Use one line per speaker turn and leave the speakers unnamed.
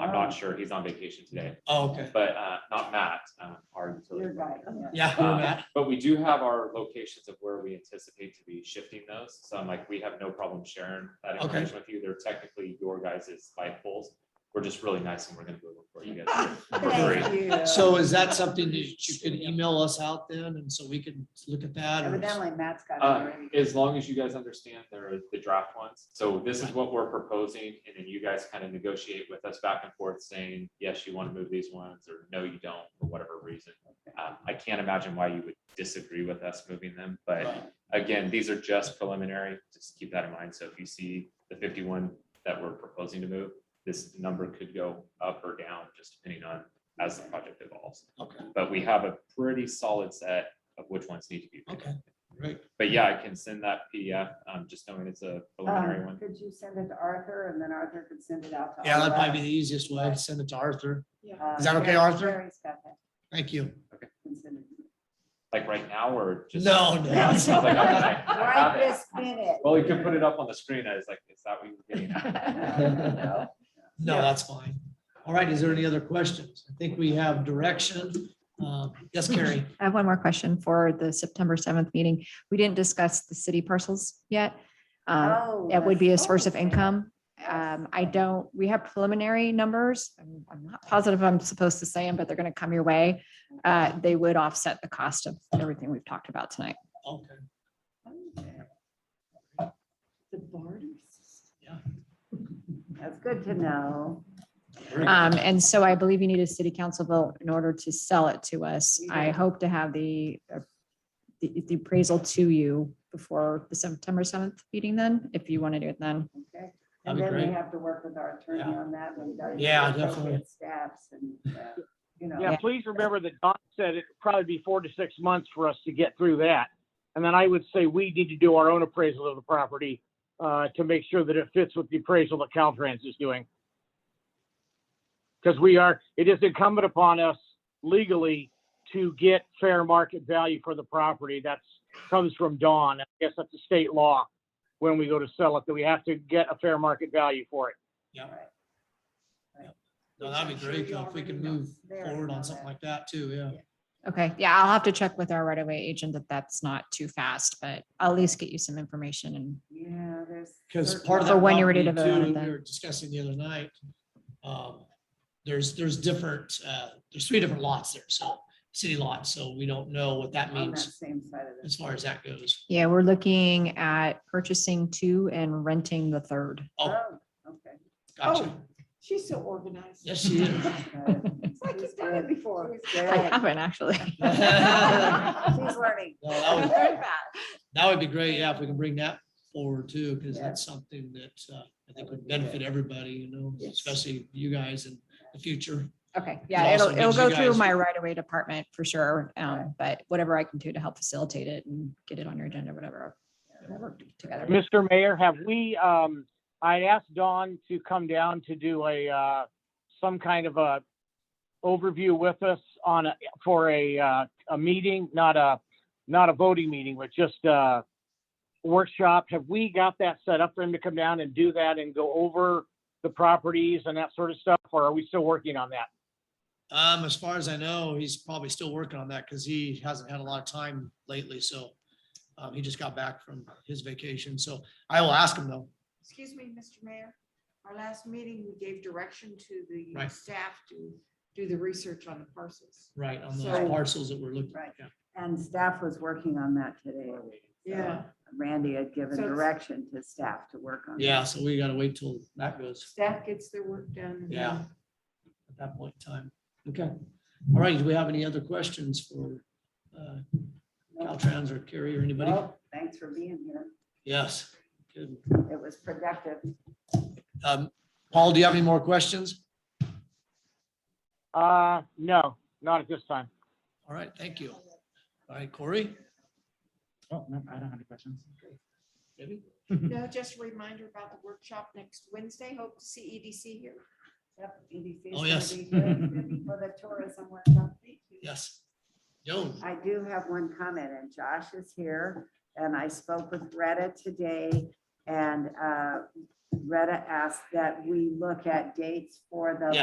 I'm
Oh.
not sure. He's on vacation today,
Oh, okay.
but uh, not Matt, um, our
You're
utility.
right, yeah.
Yeah,
Um,
Matt.
But we do have our locations of where we anticipate to be shifting those. So I'm like, we have no problem sharing that
Okay.
information with you. They're technically your guys' light poles. We're just really nice and we're gonna do it for you guys. for free.
Ah, Thank you.
So is that something that you can email us out then and so we can look at that? or-
Evidently Matt's got it
Uh,
already.
as long as you guys understand there are the draft ones, so this is what we're proposing, and then you guys kind of negotiate with us back and forth saying, yes, you want to move these ones, or no, you don't, for whatever reason. Um, I can't imagine why you would disagree with us moving them, but
Right.
again, these are just preliminary, just keep that in mind, so if you see the fifty-one that we're proposing to move, this number could go up or down, just depending on as the project evolves,
Okay,
but we have a pretty solid set of which ones need to be. picked.
okay, great.
But yeah, I can send that PDF, um, just knowing it's a preliminary
Um,
one.
Could you send it to Arthur and then Arthur could send it out to all of us?
Yeah, that'd probably be the easiest way. Send it to Arthur.
Uh,
Is that okay,
Jerry-
Arthur?
Jerry's got that.
Thank you.
Can send it.
Like right now or just?
No, no.
Yeah, it's not like I- I- I
Right
have it.
this minute.
Well, you can put it up on the screen. I was like, is that what you're getting at?
Uh,
No.
No, that's fine. All right, is there any other questions? I think we have direction. Uh, Yes, Carrie.
I have one more question for the September seventh meeting. We didn't discuss the city parcels yet. Um,
Oh,
It would be a
that's-
source of
oh,
income.
Yes.
Um, I don't, we have preliminary numbers. I'm I'm not positive I'm supposed to say them, but they're going to come your way. Uh, They would offset the cost of everything we've talked about tonight.
Okay.
okay. The barter system.
Yeah.
That's good to know.
Very good.
Um, and so I believe you need a city council vote in order to sell it to us. I hope to have the, uh, the the appraisal to you before the September seventh meeting then, if you want to do it then.
Okay. And
That'd be
then we
great.
have to work with our attorney
Yeah.
on that. when we got
Yeah,
appropriate
definitely.
Staffs and, uh, you know.
Yeah, please remember that Don said it'd probably be four to six months for us to get through that. And then I would say we need to do our own appraisal of the property uh, to make sure that it fits with the appraisal that Caltrans is doing. Because we are, it is incumbent upon us legally to get fair market value for the property. That's, comes from Don. I guess that's a state law when we go to sell it, that we have to get a fair market value for it.
No, that'd be great though, if we can move forward on something like that too, yeah.
Okay, yeah, I'll have to check with our right of way agent that that's not too fast, but I'll at least get you some information and
Yeah, there's.
Because
certain
part of
For
that.
when you're ready
property,
to vote on
too,
that.
We were discussing the other night. um, There's, there's different, uh, there's three different lots there, so, city lots, so we don't know what that
On that
means
same side of
as
the.
far as that goes.
yeah, we're looking at purchasing two and renting the third.
Oh,
Oh, okay.
Oh.
gotcha.
She's so organized.
Yes, she is.
It's like you've done it before.
I haven't actually.
She's learning.
No, that would,
Very
that would be great, yeah, if we can bring that forward too, because
Yeah.
that's something that, uh, I think would benefit everybody, you know,
Yes.
especially you guys in the future.
Okay,
It
yeah,
also
it'll, it'll
gives you
go through
guys-
my right of way department for sure, um,
Right.
but whatever I can do to help facilitate it and get it on your agenda, whatever. we'll work Together.
Mr. Mayor, have we, um, I asked Dawn to come down to do a, uh, some kind of a overview with us on, a- for a, uh, a meeting, not a, not a voting meeting, but just a workshop. Have we got that set up for him to come down and do that and go over the properties and that sort of stuff? Or are we still working on that?
Um, as far as I know, he's probably still working on that because he hasn't had a lot of time lately, so. Um, he just got back from his vacation, so I will ask him though.
Excuse me, Mr. Mayor. Our last meeting, we gave direction to the
Right.
staff to do the research on the parcels.
Right, on
So-
those parcels that we're looking.
Right.
yeah.
And staff was working on that today.
Yeah,
Randy had given
So it's-
direction to staff to work on.
Yeah, so we gotta wait till that goes
staff gets their work done. and
Yeah.
then-
at that point in time. Okay. All right, do we have any other questions for, uh, Caltrans or Carrie or anybody?
Well, thanks for being here.
Yes. Good.
It was productive.
Um, Paul, do you have any more questions?
Uh, no, not at this time.
All right, thank you. All right, Corey?
Oh, no, I don't have any questions.
Debbie?
No, just a reminder about the workshop next Wednesday. Hope to see EDC here.
Yep, EDC is
Oh,
gonna
yes.
be good For the tourism workshop.
Yes. Joan?
I do have one comment, and Josh is here, and I spoke with Retta today, and uh, Retta asked that we look at dates for the
Yeah.